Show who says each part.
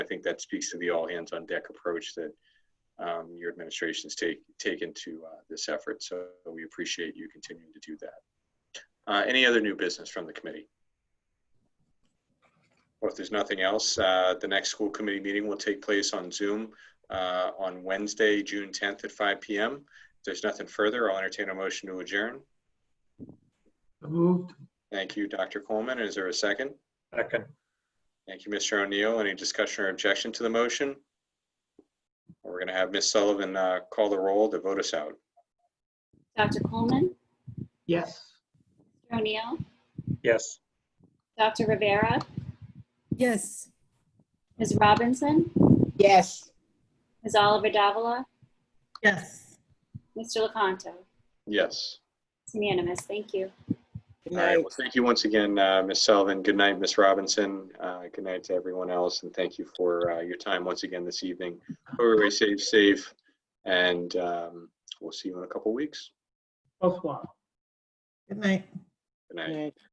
Speaker 1: think that speaks to the all hands on deck approach that um, your administration's take, taken to uh, this effort. So we appreciate you continuing to do that. Uh, any other new business from the committee? Well, if there's nothing else, uh, the next school committee meeting will take place on Zoom uh, on Wednesday, June 10th at 5 p.m. If there's nothing further, I'll entertain a motion to adjourn.
Speaker 2: Moved.
Speaker 1: Thank you, Dr. Coleman. Is there a second?
Speaker 3: Second.
Speaker 1: Thank you, Mr. O'Neill. Any discussion or objection to the motion? We're going to have Ms. Sullivan uh, call the roll to vote us out.
Speaker 4: Dr. Coleman,
Speaker 2: Yes.
Speaker 4: Mr. O'Neill,
Speaker 3: Yes.
Speaker 4: Dr. Rivera,
Speaker 5: Yes.
Speaker 4: Ms. Robinson,
Speaker 5: Yes.
Speaker 4: Ms. Oliver Davila,
Speaker 5: Yes.
Speaker 4: Mr. LaCanto.
Speaker 1: Yes.
Speaker 4: It's unanimous. Thank you.
Speaker 5: Good
Speaker 1: All right.
Speaker 5: night.
Speaker 1: Well, thank you once again, uh, Ms. Sullivan. Good night, Ms. Robinson. Uh, Good night to everyone else, and thank you for uh, your time once again this evening. Everybody safe, safe, and um, we'll see you in a couple weeks.
Speaker 2: Both one.
Speaker 5: Good night.
Speaker 1: Good night.